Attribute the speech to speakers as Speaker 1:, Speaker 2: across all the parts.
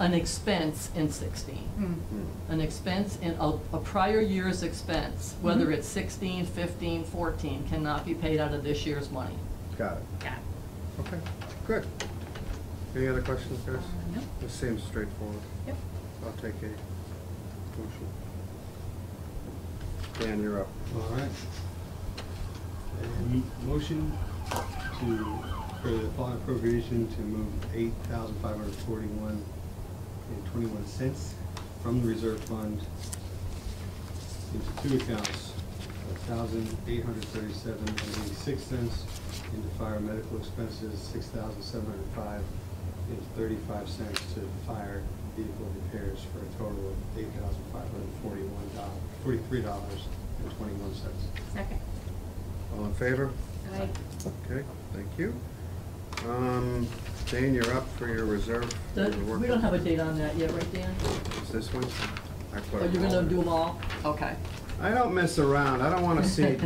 Speaker 1: an expense in sixteen.
Speaker 2: Hmm.
Speaker 3: Mm.
Speaker 4: Hmm,
Speaker 1: An expense in, a, a prior year's expense, whether it's 16, 15, 14, cannot be paid out of this year's money.
Speaker 4: Got it.
Speaker 3: Got it.
Speaker 4: Okay, good. Any other questions, guys?
Speaker 3: Uh, no.
Speaker 4: This seems straightforward.
Speaker 3: Yep.
Speaker 4: I'll take a motion. Dan, you're up.
Speaker 5: All right. And motion to, for the following appropriation to move eight thousand five hundred forty-one and twenty-one cents from the reserve fund into two accounts, thousand eight hundred thirty-seven and eighty-six cents into fire medical expenses, six thousand seven hundred five and thirty-five cents to fire vehicle repairs for a total of eight thousand five hundred forty-one dollars, forty-three dollars and twenty-one cents.
Speaker 3: Second.
Speaker 4: All in favor?
Speaker 3: Aye.
Speaker 4: Okay, thank you. Um, Dan, you're up for your reserve.
Speaker 1: The-
Speaker 4: your work.
Speaker 1: we don't have a date on that yet, right, Dan?
Speaker 4: Is this one? I put
Speaker 1: Are you
Speaker 4: them all
Speaker 1: gonna
Speaker 4: in.
Speaker 1: do them all? Okay.
Speaker 4: I don't mess around. I don't wanna see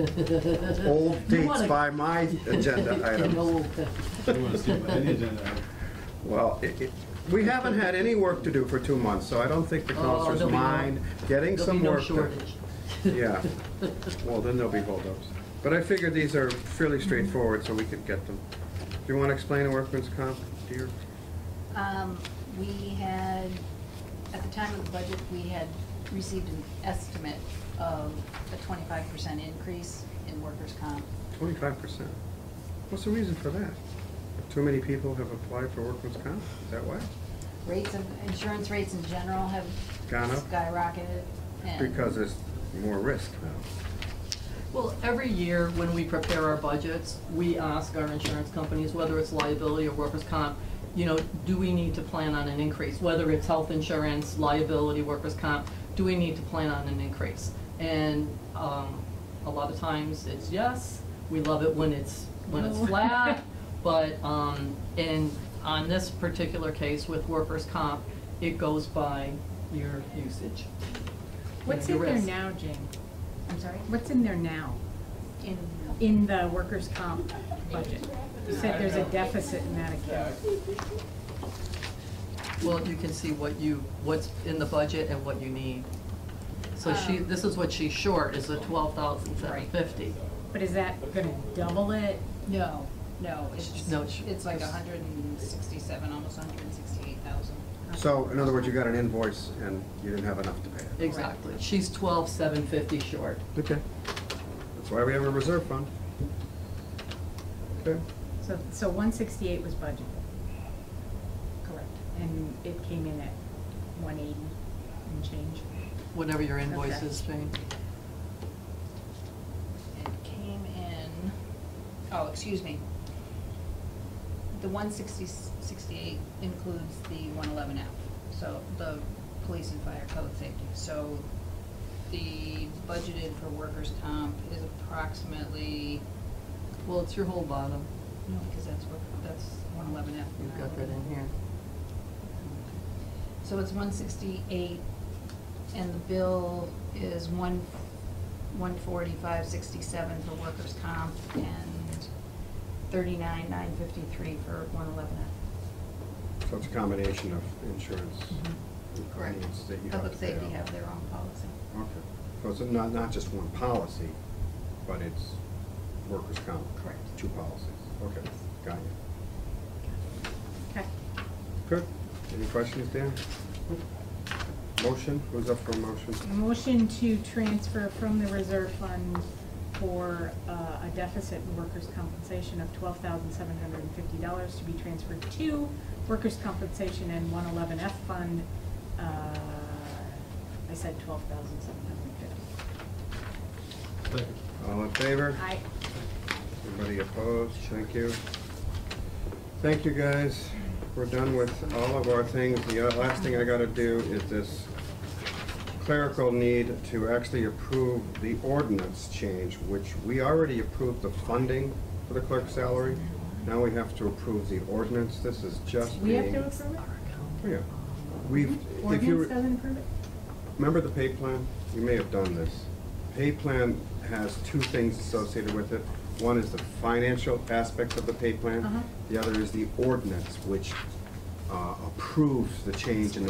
Speaker 4: old
Speaker 1: You
Speaker 4: dates
Speaker 1: wanna-
Speaker 4: by my agenda
Speaker 1: No,
Speaker 4: items.
Speaker 1: okay.
Speaker 5: You want to see what any agenda item?
Speaker 4: Well, it, it, we haven't had any work to do for two months, so I don't think the
Speaker 1: Oh,
Speaker 4: counselors
Speaker 1: there'll be no-
Speaker 4: mind getting
Speaker 1: There'll
Speaker 4: some
Speaker 1: be no
Speaker 4: work. done.
Speaker 1: shortage.
Speaker 4: Yeah. Well, then there'll be holdups. But I figured these are fairly straightforward, so we could get them. Do you wanna explain the workman's comp, dear?
Speaker 2: Um, we had, at the time of the budget, we had received an estimate of a twenty-five percent increase in workers' comp.
Speaker 4: Twenty-five percent. What's the reason for that? Too many people have applied for workman's comp? Is that why?
Speaker 2: Rates of, insurance rates in general have
Speaker 4: Gone up?
Speaker 2: skyrocketed and.
Speaker 4: Because there's more risk now.
Speaker 1: Well, every year when we prepare our budgets, we ask our insurance companies, whether it's liability or workers' comp, you know, do we need to plan on an increase? Whether it's health insurance, liability, workers' comp, do we need to plan on an increase? And um, a lot of times it's yes. We love it when it's, when it's
Speaker 3: No.
Speaker 1: flat. But, um, in, on this particular case with workers' comp, it goes by your usage.
Speaker 3: What's
Speaker 1: Your
Speaker 3: in there
Speaker 1: risk.
Speaker 3: now, Jane?
Speaker 2: I'm sorry?
Speaker 3: What's in there now,
Speaker 2: In,
Speaker 3: in the workers' comp budget? You said there's a deficit in that account.
Speaker 1: Well, you can see what you, what's in the budget and what you need. So she,
Speaker 2: Um,
Speaker 1: this is what she's short, is the twelve thousand seven fifty.
Speaker 3: But is that gonna double it?
Speaker 2: no, no, it's,
Speaker 1: No, it's-
Speaker 2: it's like a hundred and sixty-seven, almost hundred and sixty-eight thousand.
Speaker 4: So, in other words, you got an invoice and you didn't have enough to pay it.
Speaker 1: Exactly. She's twelve seven fifty short.
Speaker 4: Okay. That's why we have a reserve fund. Okay.
Speaker 3: So, so one sixty-eight was budgeted,
Speaker 2: Correct.
Speaker 3: and it came in at one eighty and change.
Speaker 1: Whatever your invoice
Speaker 3: Okay.
Speaker 1: is, Jane.
Speaker 2: It came in, oh, excuse me. The one sixty, sixty-eight includes the one eleven F, so the police and fire code safety. So the budgeted for workers' comp is approximately,
Speaker 1: Well, it's your whole bottom.
Speaker 2: no, because that's what, that's one eleven F.
Speaker 1: You've got that in here.
Speaker 2: So it's one sixty-eight, and the bill is one, one forty-five sixty-seven for workers' comp, and thirty-nine nine fifty-three for one eleven
Speaker 4: So it's a combination of insurance
Speaker 2: Correct.
Speaker 4: needs that you have to pay out.
Speaker 2: Public safety have their own policy.
Speaker 4: Okay. So it's not, not just one policy, but it's workers' comp.
Speaker 2: Correct.
Speaker 4: Two policies. Okay, got you.
Speaker 3: Okay.
Speaker 4: Good. Any questions, Dan? Motion, who's up for a motion?
Speaker 3: Motion to transfer from the reserve fund for uh, a deficit in workers' compensation of twelve thousand seven hundred and fifty dollars to be transferred to workers' compensation and one eleven F fund. Uh, I said twelve thousand seven hundred
Speaker 5: Second.
Speaker 4: All in favor?
Speaker 3: and fifty. I,
Speaker 4: Anybody opposed? Thank you. Thank you, guys. We're done with all of our things. The uh, last thing I gotta do is this clerical need to actually approve the ordinance change, which we already approved the funding for the clerk's salary. Now we have to approve the ordinance. This is just
Speaker 3: we have
Speaker 4: being-
Speaker 3: to approve it?
Speaker 4: Yeah. We've, if you.
Speaker 3: Ordinance doesn't approve it?
Speaker 4: Remember the pay plan? You may have done this. Pay plan has two things associated with it. One is the financial aspects of the pay plan.
Speaker 3: Uh-huh.
Speaker 4: The other is the ordinance, which uh, approves the change in the